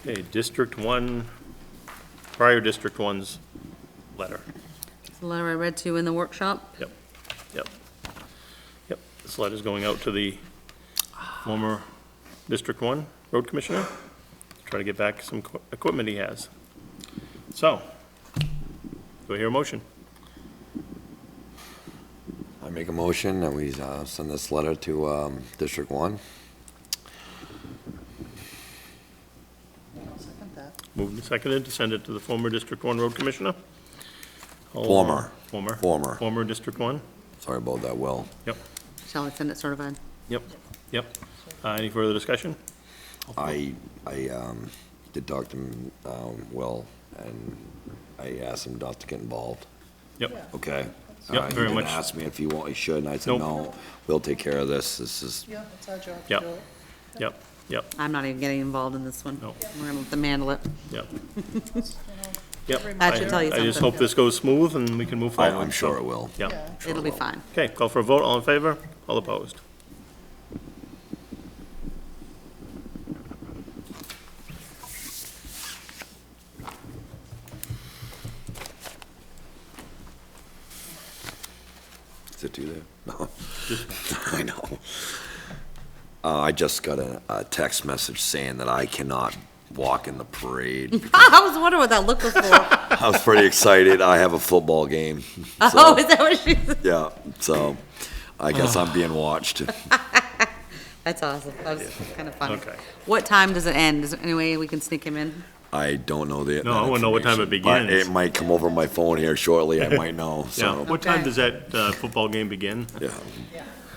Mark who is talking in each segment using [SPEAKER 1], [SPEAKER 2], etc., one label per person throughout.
[SPEAKER 1] Okay, District One, prior District One's letter.
[SPEAKER 2] It's the letter I read to you in the workshop.
[SPEAKER 1] Yep, yep. Yep, this letter's going out to the former District One Road Commissioner. Try to get back some equi- equipment he has. So, do I hear a motion?
[SPEAKER 3] I make a motion that we uh, send this letter to um, District 1.
[SPEAKER 1] Moved and seconded to send it to the former District One Road Commissioner? All-
[SPEAKER 3] Former.
[SPEAKER 1] Former.
[SPEAKER 3] Former.
[SPEAKER 1] Former District One?
[SPEAKER 3] Sorry about that, Will.
[SPEAKER 1] Yep,
[SPEAKER 2] Shall I send it certified?
[SPEAKER 1] yep, yep. Uh, Any further discussion?
[SPEAKER 3] I, I um, did talk to um, Will, and I asked him not to get involved,
[SPEAKER 1] Yep,
[SPEAKER 3] okay?
[SPEAKER 1] Yep,
[SPEAKER 3] Uh,
[SPEAKER 1] very
[SPEAKER 3] He
[SPEAKER 1] much.
[SPEAKER 3] didn't ask me if he want, he should, and I said,
[SPEAKER 1] Nope.
[SPEAKER 3] no, we'll take care of this, this is,
[SPEAKER 4] Yeah, it's our job to
[SPEAKER 1] Yep.
[SPEAKER 4] do it.
[SPEAKER 1] yep, yep,
[SPEAKER 2] I'm not even getting involved in this one.
[SPEAKER 1] No.
[SPEAKER 2] We're gonna let them handle it.
[SPEAKER 1] yep. Yep.
[SPEAKER 2] That should tell you
[SPEAKER 1] I just
[SPEAKER 2] something.
[SPEAKER 1] hope this goes smooth and we can move forward.
[SPEAKER 3] Oh, I'm sure
[SPEAKER 1] so-
[SPEAKER 3] it will.
[SPEAKER 1] Yeah.
[SPEAKER 3] Sure
[SPEAKER 2] It'll be
[SPEAKER 3] will.
[SPEAKER 2] fine.
[SPEAKER 1] Okay, call for a vote, all in favor, all opposed.
[SPEAKER 3] Is it two there? No. I know. Uh, I just got a, a text message saying that I cannot walk in the parade.
[SPEAKER 2] I was wondering what that look was for.
[SPEAKER 3] I was pretty excited. I have a football game.
[SPEAKER 2] Oh, is that what she,
[SPEAKER 3] Yeah, so I guess I'm being watched.
[SPEAKER 2] that's awesome. That was kind of funny.
[SPEAKER 1] Okay.
[SPEAKER 2] What time does it end? Is there any way we can sneak him in?
[SPEAKER 3] I don't know
[SPEAKER 1] No,
[SPEAKER 3] the. that
[SPEAKER 1] I wanna know what time it
[SPEAKER 3] information, but
[SPEAKER 1] begins.
[SPEAKER 3] It might come over my phone here shortly. I might know,
[SPEAKER 1] Yeah,
[SPEAKER 3] so,
[SPEAKER 1] what time
[SPEAKER 2] Okay.
[SPEAKER 1] does that uh, football game begin?
[SPEAKER 3] yeah.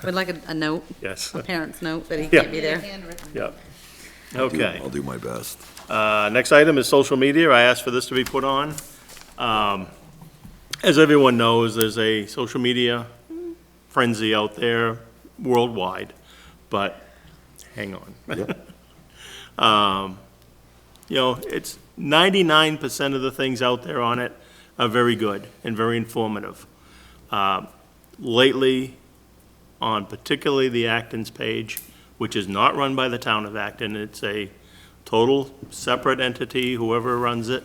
[SPEAKER 2] We'd like a, a note,
[SPEAKER 1] Yes,
[SPEAKER 2] a parent's note that he
[SPEAKER 1] Yeah.
[SPEAKER 2] can't be there.
[SPEAKER 1] yeah.
[SPEAKER 3] Do-
[SPEAKER 1] Okay.
[SPEAKER 3] I'll do my best.
[SPEAKER 1] Uh, Next item is social media. I asked for this to be put on. Um, As everyone knows, there's a social media frenzy out there worldwide, but hang on. Um, You know, it's 99% of the things out there on it are very good and very informative. Um, Lately, on particularly the Acton's page, which is not run by the town of Acton. It's a total separate entity, whoever runs it.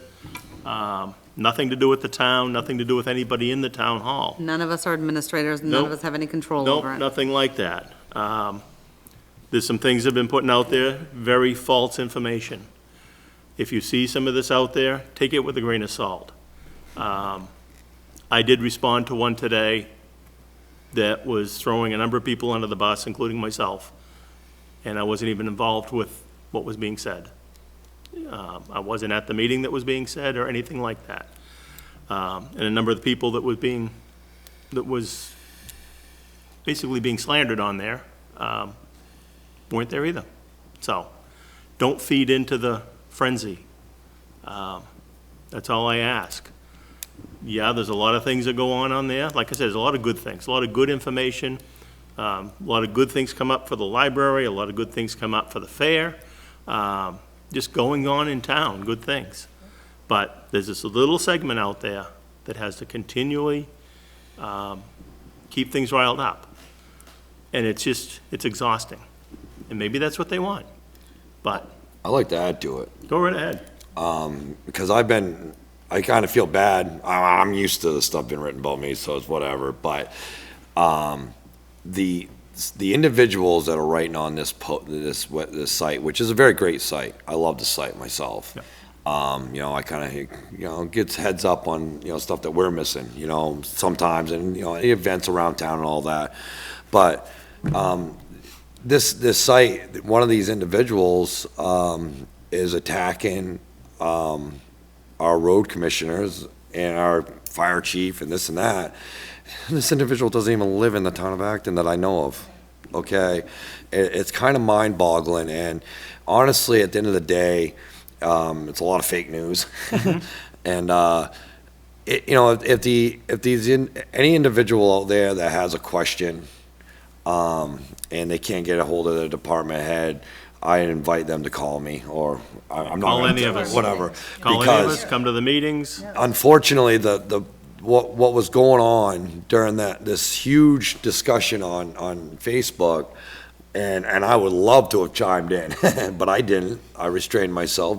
[SPEAKER 1] Um, Nothing to do with the town, nothing to do with anybody in the town hall.
[SPEAKER 2] None of us are administrators, and none of
[SPEAKER 1] Nope.
[SPEAKER 2] us have any control over
[SPEAKER 1] Nope,
[SPEAKER 2] it.
[SPEAKER 1] nothing like that. Um, There's some things that have been putting out there, very false information. If you see some of this out there, take it with a grain of salt. Um, I did respond to one today that was throwing a number of people under the bus, including myself, and I wasn't even involved with what was being said. Um, I wasn't at the meeting that was being said or anything like that. Um, And a number of the people that was being, that was basically being slandered on there, um, weren't there either. So, don't feed into the frenzy. Um, That's all I ask. Yeah, there's a lot of things that go on on there. Like I said, there's a lot of good things, a lot of good information. Um, A lot of good things come up for the library, a lot of good things come up for the fair. Um, Just going on in town, good things. But there's this little segment out there that has to continually um, keep things riled up. And it's just, it's exhausting. And maybe that's what they want. But
[SPEAKER 3] I like to add to it.
[SPEAKER 1] go right ahead.
[SPEAKER 3] because Um, I've been, I kind of feel bad. I- I'm used to the stuff being written about me, so it's whatever. But um, the the individuals that are writing on this po- this we- this site, which is a very great site, I love the site myself.
[SPEAKER 1] Yeah.
[SPEAKER 3] Um, you know, I kind of you know gets heads up on you know stuff that we're missing. You know, sometimes and you know events around town and all that, but. Um, this this site, one of these individuals um, is attacking um, our road commissioners and our fire chief and this and that. And this individual doesn't even live in the town of Acton that I know of, okay? It, it's kind of mind boggling and honestly, at the end of the day, um, it's a lot of fake news. And, uh, it, you know, if, if the, if these, in- any individual out there that has a question, um, and they can't get a hold of their department head, I invite them to call me or I- I'm not.
[SPEAKER 1] Call
[SPEAKER 3] gonna
[SPEAKER 1] any of
[SPEAKER 3] do it,
[SPEAKER 1] us.
[SPEAKER 3] Whatever.
[SPEAKER 1] Call any of
[SPEAKER 3] Because-
[SPEAKER 1] us, come to the meetings.
[SPEAKER 3] unfortunately, the, the, what, what was going on during that, this huge discussion on, on Facebook, and, and I would love to have chimed in, but I didn't. I restrained myself